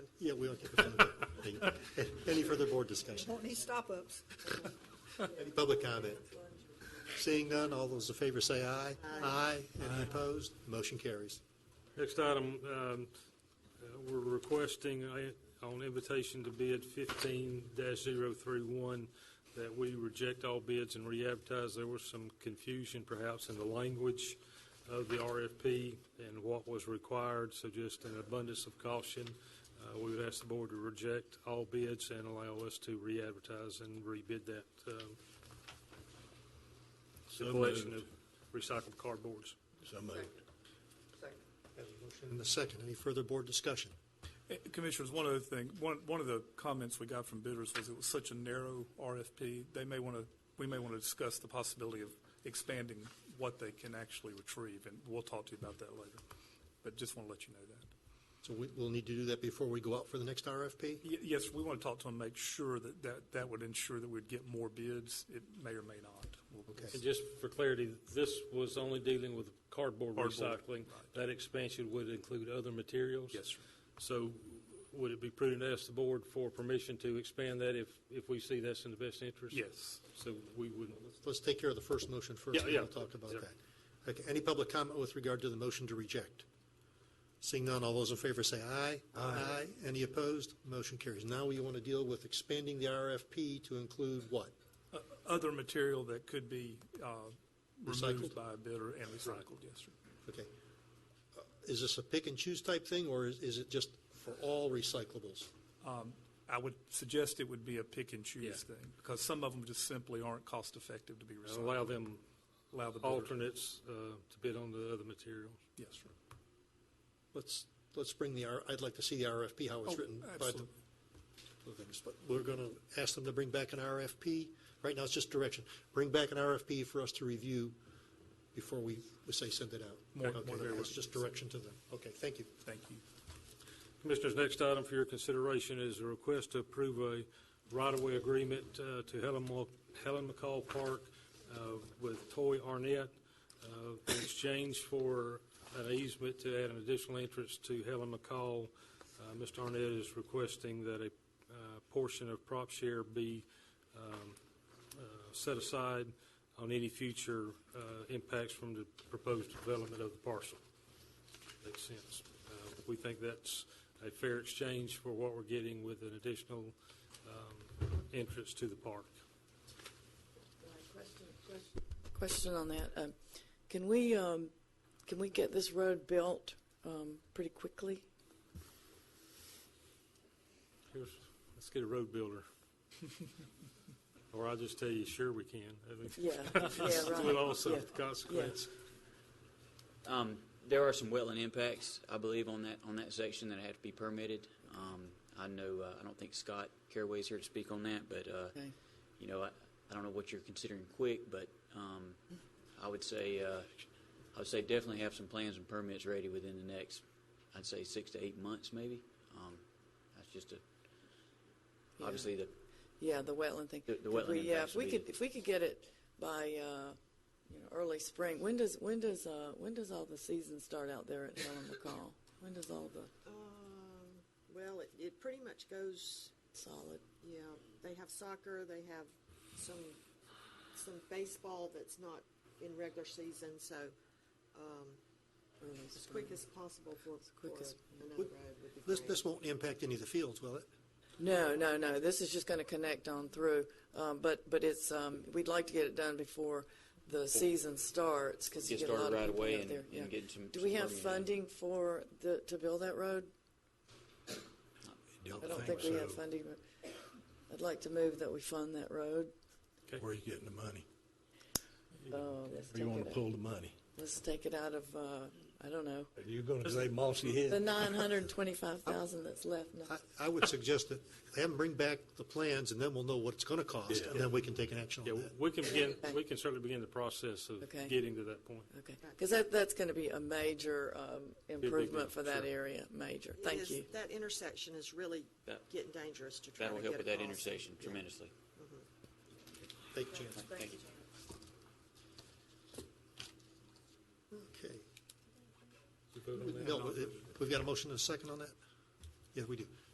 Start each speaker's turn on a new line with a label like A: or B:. A: Yeah, we all get the phone. Thank you. Any further board discussion?
B: Won't need stop-ups.
A: Any public comment? Seeing none, all those in favor say aye. Aye. Any opposed? Motion carries.
C: Next item, um, uh, we're requesting uh, on invitation to bid fifteen 31 that we reject all bids and re-advertise. There was some confusion perhaps in the language of the RFP and what was required, so just an abundance of caution, uh, we would ask the board to reject all bids and allow us to re-advertise and rebid that, um, the collection of recycled cardboards.
D: So moved.
A: Have a motion And a second, any further board discussion?
E: Eh, Commissioners, one other thing, one, one of the comments we got from bidders was it was such a narrow RFP, they may want to, we may want to discuss the possibility of expanding what they can actually retrieve, and we'll talk to you about that later. But just want to let you know that.
A: So we, we'll need to do that before we go out for the next RFP?
E: Y- Yes, we want to talk to them, make sure that, that, that would ensure that we'd get more bids. It may or may not. We'll-
C: And just for clarity, this was only dealing with cardboard
E: Cardboard,
C: recycling. That expansion would include other materials?
E: Yes, sir.
C: So would it be prudent to ask the board for permission to expand that if, if we see that's in the best interest?
E: Yes.
C: So we would,
A: Let's take care of the first motion first,
C: Yeah,
A: and we'll
C: yeah.
A: talk about
C: Yeah.
A: that. Okay, any public comment with regard to the motion to reject? Seeing none, all those in favor say aye. Aye. Any opposed? Motion carries. Now we want to deal with expanding the RFP to include what?
E: O- Other material that could be, uh,
A: Recycled.
E: removed by a bidder and recycled, yes, sir.
A: Okay. Uh, Is this a pick and choose type thing, or is, is it just for all recyclables?
E: I would suggest it would be a pick and
C: Yeah.
E: choose thing, because some of them just simply aren't cost effective to be recycled.
C: allow them
E: Allow the bidder.
C: alternates uh, to bid on the other materials.
E: Yes, sir.
A: Let's, let's bring the, R- I'd like to see the RFP, how it's
E: Oh,
A: written. by the-
E: absolutely.
A: of things, but we're going to ask them to bring back an RFP. Right now, it's just direction. Bring back an RFP for us to review before we, we say send it out.
E: More-
A: Okay,
E: more than
A: that's just direction to them. Okay, thank you.
E: Thank you.
C: Commissioners, next item for your consideration is a request to approve a right-of-way agreement uh, to Helen Mo- Helen McCall Park uh, with Toy Arnett uh, in exchange for an easement to add an additional entrance to Helen McCall. Uh, Mr. Arnett is requesting that a uh, portion of prop share be um, uh, set aside on any future uh, impacts from the proposed development of the parcel. Makes sense. Uh, We think that's a fair exchange for what we're getting with an additional um, entrance to the park.
F: Question on that. Um, Can we, um, can we get this road built um, pretty quickly?
C: Here's, let's get a road builder. Or I'll just tell you, sure we can. I think
F: Yeah, yeah, right.
C: With also
F: Yeah.
C: the consequence.
G: Um, there are some wetland impacts, I believe, on that, on that section that have to be permitted. Um, I know, uh, I don't think Scott Caraway's here to speak on that, but, uh,
F: Okay.
G: you know, I, I don't know what you're considering quick, but, um, I would say, uh, I would say definitely have some plans and permits ready within the next, I'd say six to eight months maybe. Um, that's just a,
F: Yeah.
G: obviously the,
F: Yeah, the wetland thing.
G: The- the
F: Could we,
G: wetland
F: Yeah,
G: impacts
F: if we
G: would
F: could,
G: be-
F: if we could get it by, uh, you know, early spring, when does, when does, uh, when does all the season start out there at Helen McCall? When does all the
B: Um, Well, it, it pretty much goes,
F: solid,
B: yeah, they have soccer, they have some, some baseball that's not in regular season, so um,
F: early spring?
B: as quick as possible for, for
F: quick as-
B: another road would be
A: This,
B: great.
A: this won't impact any of the fields, will it?
F: No, no, no. This is just going to connect on through. Um, but but it's um, we'd like to get it done before the season starts because you
G: Get
F: get a lot
G: started
F: of
G: right
F: people
G: away
F: out
G: and-
F: there.
G: and
F: yeah.
G: get some-
F: Do we
G: some
F: have
G: permitting.
F: funding for the to build that road? I don't think, we have
D: so.
F: funding. But I'd like to move that we fund that road.
D: Where are you getting the money?
F: Oh, let's
D: Where you
F: take
D: want
F: it.
D: to
F: Out.
D: pull the money?
F: Let's take it out of uh, I don't know
D: Are you going to say Mossy Head?
F: the nine hundred twenty-five thousand that's left. No.
A: I, I would suggest that have them bring back the plans, and then we'll know what it's going to cost, and then we can take an action
C: Yeah,
A: on that.
C: we can begin, we can certainly begin the process of
F: Okay.
C: getting to that point.
F: Okay, because that, that's going to be a major um, improvement for that
C: sure.
F: area. Major.
B: It
F: Thank
B: is-
F: you.
B: That intersection is really
G: That-
B: getting dangerous to try to
G: that'll
B: get
G: help with that
B: across.
G: intersection tremendously.
A: Take a chance.
G: Thank you.
A: Okay.
C: You vote on that?
A: Bill, we've got a motion and a second on that? Yeah, we do.